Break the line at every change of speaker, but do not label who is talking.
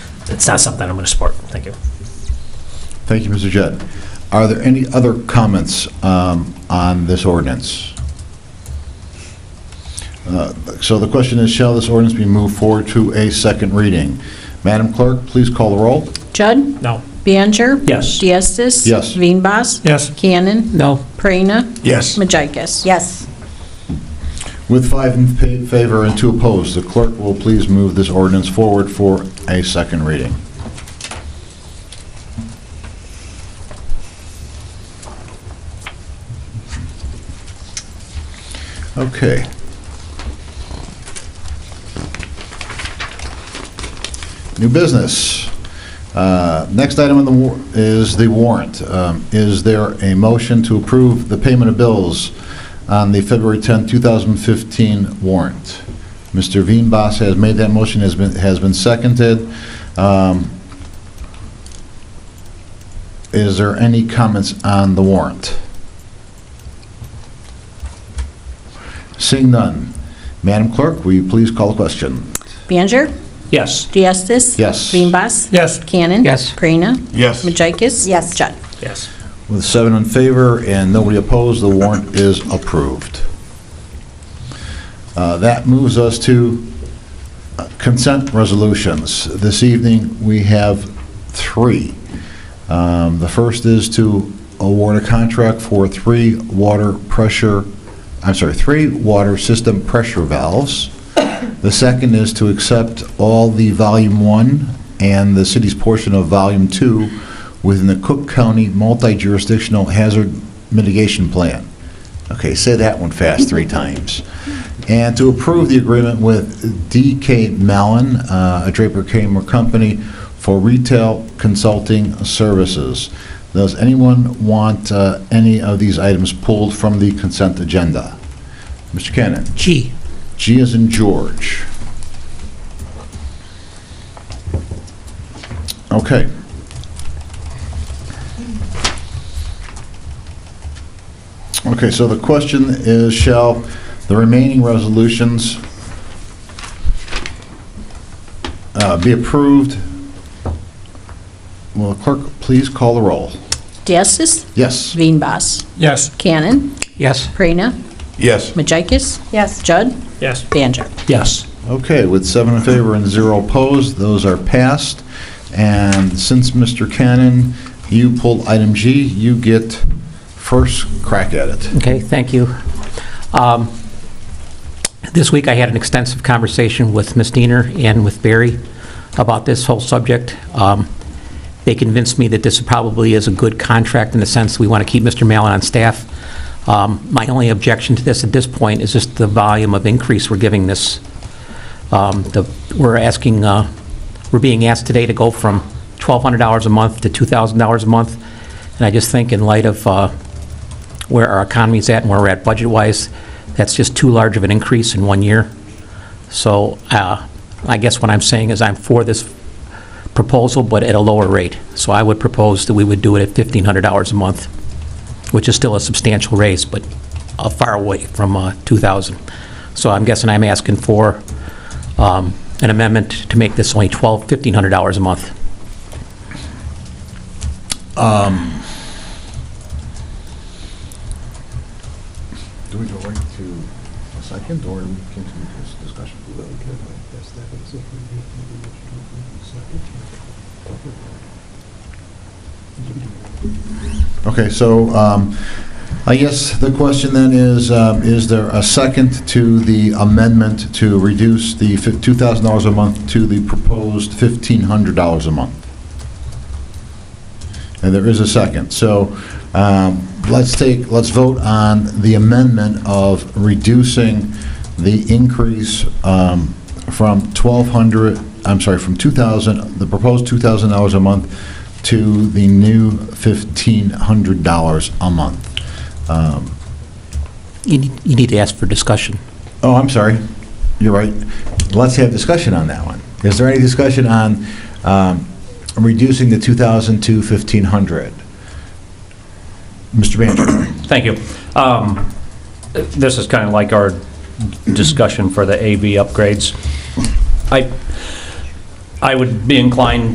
it's not something I'm going to support. Thank you.
Thank you, Mr. Jett. Are there any other comments um, on this ordinance? Uh, So the question is, shall this ordinance be moved forward to a second reading? Madam Clerk, please call the roll.
Judd?
No.
Biancher?
Yes.
Diestis?
Yes.
Veenbos?
Yes.
Cannon?
No.
Prina?
Yes.
Majicus?
Yes.
With five in fa- favor and two opposed, the clerk will please move this ordinance forward for a second reading. Okay. New business. Uh, Next item on the war, is the warrant. Um, Is there a motion to approve the payment of bills on the February 10, 2015 warrant? Mr. Veenbos has made that motion, has been, has been seconded. Um, Is there any comments on the warrant? Seeing none. Madam Clerk, will you please call the question?
Biancher?
Yes.
Diestis?
Yes.
Veenbos?
Yes.
Cannon?
Yes.
Prina?
Yes.
Majicus?
Yes.
Judd?
Yes.
With seven in favor and nobody opposed, the warrant is approved. Uh, That moves us to uh, consent resolutions. This evening, we have three. Um, The first is to award a contract for three water pressure, I'm sorry, three water system pressure valves. The second is to accept all the Volume 1 and the city's portion of Volume 2 within the Cook County Multi-Jurisdictional Hazard Mitigation Plan. Okay, say that one fast three times. And to approve the agreement with DK Mellon, uh, a Draper Kramer company, for retail consulting services. Does anyone want uh, any of these items pulled from the consent agenda? Mr. Cannon?
G.
G is in George. Okay. Okay, so the question is, shall the remaining resolutions uh, be approved? Will the clerk please call the roll?
Diestis?
Yes.
Veenbos?
Yes.
Cannon?
Yes.
Prina?
Yes.
Majicus?
Yes.
Judd?
Yes.
Biancher?
Yes.
Okay, with seven in favor and zero opposed, those are passed. And since, Mr. Cannon, you pulled item G, you get first crack at it.
Okay, thank you. Um, This week, I had an extensive conversation with Ms. Diener and with Barry about this whole subject. Um, They convinced me that this probably is a good contract in the sense we want to keep Mr. Mallon on staff. Um, My only objection to this at this point is just the volume of increase we're giving this. Um, the- We're asking, uh, we're being asked today to go from $1,200 a month to $2,000 a month, and I just think in light of uh, where our economy's at and where we're at budget-wise, that's just too large of an increase in one year. So uh, I guess what I'm saying is I'm for this proposal, but at a lower rate. So I would propose that we would do it at $1,500 a month, which is still a substantial raise, but uh, far away from uh, 2,000. So I'm guessing I'm asking for um, an amendment to make this only 12, $1,500 a month.
Do we go right to a second, or we continue this discussion? Okay, so um, I guess the question then is, um, is there a second to the amendment to reduce the fif- $2,000 a month to the proposed $1,500 a month? And there is a second. So um, let's take, let's vote on the amendment of reducing the increase um, from 1,200, I'm sorry, from 2,000, the proposed $2,000 a month to the new $1,500 a month. Um,
You need you need to ask for discussion.
Oh, I'm sorry, you're right. Let's have discussion on that one. Is there any discussion on um, reducing the 2,000 to 1,500? Mr. Banjer?
Thank you. Um, This is kind of like our discussion for the AV upgrades. I, I would be inclined